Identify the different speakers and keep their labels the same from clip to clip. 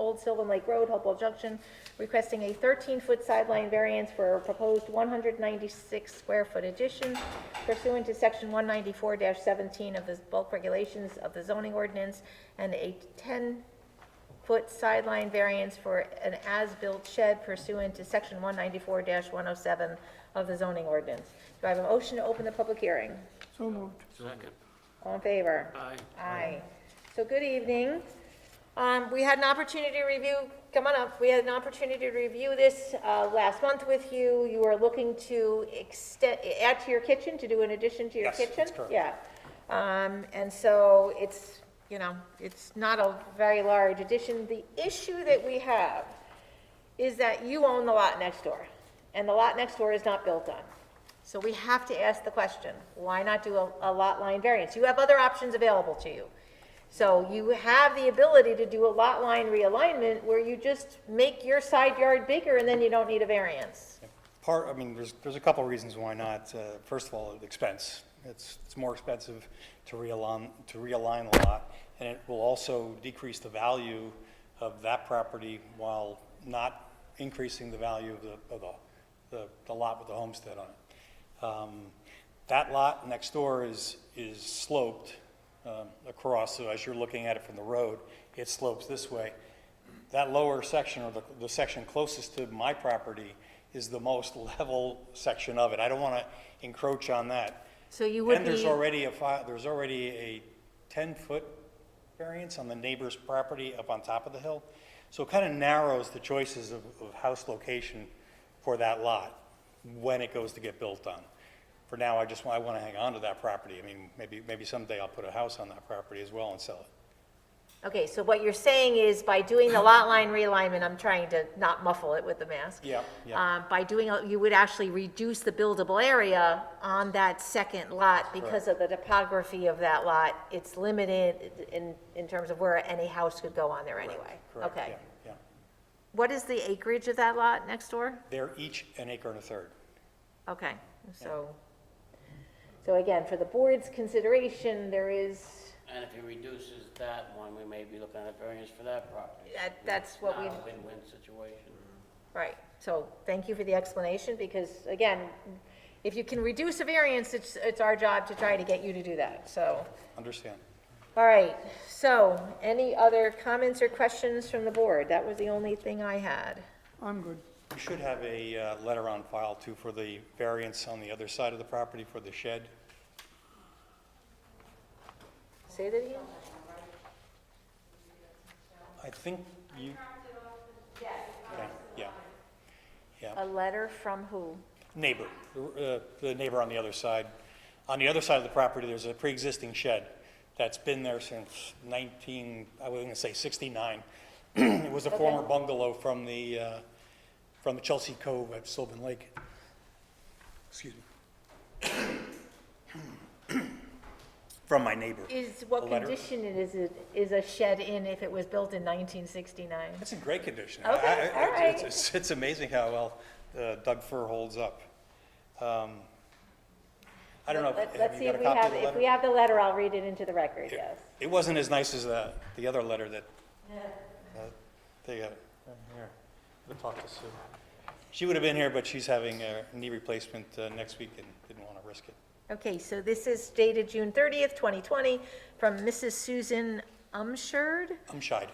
Speaker 1: Old Sylvan Lake Road, Hopewell Junction, requesting a 13-foot sideline variance for a proposed 196-square-foot addition pursuant to Section 194-17 of the bulk regulations of the zoning ordinance, and a 10 foot sideline variance for an as-built shed pursuant to section 194-107 of the zoning ordinance. Do I have a motion to open the public hearing?
Speaker 2: So moved.
Speaker 3: Second.
Speaker 1: All in favor?
Speaker 3: Aye.
Speaker 1: Aye. So good evening. Um, we had an opportunity to review, come on up, we had an opportunity to review this, uh, last month with you. You were looking to extend, add to your kitchen, to do an addition to your
Speaker 4: Yes,
Speaker 1: kitchen?
Speaker 4: that's correct.
Speaker 1: Yeah. Um, and so it's, you know, it's not a very large addition. The issue that we have is that you own the lot next door, and the lot next door is not built on. So we have to ask the question, why not do a, a lot line variance? You have other options available to you. So you have the ability to do a lot line realignment where you just make your side yard bigger and then you don't need a variance.
Speaker 4: Part, I mean, there's, there's a couple reasons why not. Uh, First of all, the expense. It's, it's more expensive to realign, to realign the lot, and it will also decrease the value of that property while not increasing the value of the, of the, the- the lot with the homestead on it. Um, That lot next door is, is sloped um, across, so as you're looking at it from the road, it slopes this way that lower section, or the, the section closest to my property, is the most level section of it. I don't want to encroach on that.
Speaker 1: So you would
Speaker 4: And there's
Speaker 1: be,
Speaker 4: already a fi, there's already a ten-foot variance on the neighbor's property up on top of the hill. So it kind of narrows the choices of, of house location for that lot when it goes to get built on. For now, I just, wa- I want to hang on to that property. I mean, maybe, maybe someday I'll put a house on that property as well and sell it.
Speaker 1: okay, so what you're saying is by doing the lot line realignment, I'm trying to not muffle it with the mask.
Speaker 4: Yeah, yeah.
Speaker 1: Uh, by doing, a- you would actually reduce the buildable area on that second lot because of the topography of that lot. It's limited in, in terms of where any house could go on there anyway.
Speaker 4: Correct,
Speaker 1: Okay.
Speaker 4: yeah, yeah.
Speaker 1: What is the acreage of that lot next door?
Speaker 4: They're each an acre and a third.
Speaker 1: Okay, so, so again, for the board's consideration, there is,
Speaker 3: And if he reduces that one, we may be looking at variance for that property.
Speaker 1: That- that's what we-
Speaker 3: Not a win-win situation.
Speaker 1: right, so thank you for the explanation, because again, if you can reduce a variance, it's, it's our job to try to get you to do that, so.
Speaker 4: Understand.
Speaker 1: All right, so, any other comments or questions from the board? That was the only thing I had.
Speaker 2: I'm good.
Speaker 4: You should have a uh, letter on file too for the variance on the other side of the property for the shed.
Speaker 1: Say that again?
Speaker 4: I think you. Yeah, yeah,
Speaker 1: A letter from who?
Speaker 4: neighbor, uh, the neighbor on the other side. On the other side of the property, there's a pre-existing shed that's been there since 19, I was gonna say 69. It was a former bungalow from the, uh, from the Chelsea Cove at Sylvan Lake. Excuse me. From my neighbor.
Speaker 1: Is, what
Speaker 4: A letter.
Speaker 1: condition it is, it is a shed in if it was built in 1969?
Speaker 4: It's in great condition.
Speaker 1: Okay,
Speaker 4: I- I-
Speaker 1: all
Speaker 4: it's-
Speaker 1: right.
Speaker 4: It's, it's amazing how well uh, Doug Fir holds up. Um, I don't know,
Speaker 1: Let-
Speaker 4: if-
Speaker 1: Let's
Speaker 4: have
Speaker 1: see
Speaker 4: you
Speaker 1: if
Speaker 4: got a
Speaker 1: we
Speaker 4: copy of
Speaker 1: have,
Speaker 4: the
Speaker 1: if
Speaker 4: letter?
Speaker 1: we have the letter, I'll read it into the record,
Speaker 4: It-
Speaker 1: yes.
Speaker 4: It wasn't as nice as the, the other letter that, uh, they got, here, I'll talk to Sue. She would have been here, but she's having a knee replacement uh, next week and didn't want to risk it.
Speaker 1: Okay, so this is dated June 30th, 2020, from Mrs. Susan Umshird?
Speaker 4: I'm shy.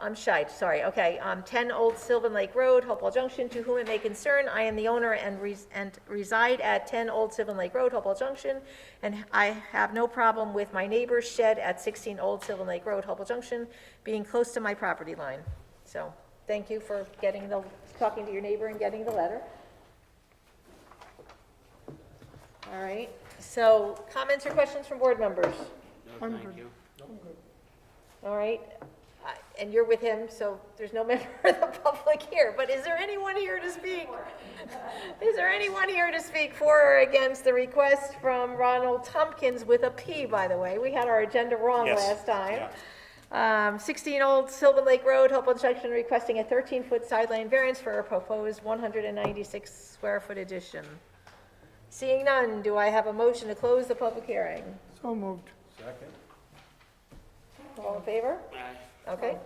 Speaker 1: I'm shy, sorry, okay, um, 10 Old Sylvan Lake Road, Hopewell Junction, to whom it may concern, I am the owner and res- and reside at 10 Old Sylvan Lake Road, Hopewell Junction, and I have no problem with my neighbor's shed at 16 Old Sylvan Lake Road, Hopewell Junction, being close to my property line. So, thank you for getting the, talking to your neighbor and getting the letter. All right, so, comments or questions from board members?
Speaker 3: No, thank you.
Speaker 1: All right, I- and you're with him, so there's no member of the public here, but is there anyone here to speak? Is there anyone here to speak for or against the request from Ronald Tompkins with a P, by the way? We had our agenda wrong
Speaker 4: Yes,
Speaker 1: last time. Um, 16 Old Sylvan Lake Road, Hopewell Junction, requesting a 13-foot sideline variance for a proposed 196-square-foot addition. Seeing none, do I have a motion to close the public hearing?
Speaker 2: So moved.
Speaker 1: All in favor?
Speaker 3: Aye.
Speaker 1: Okay.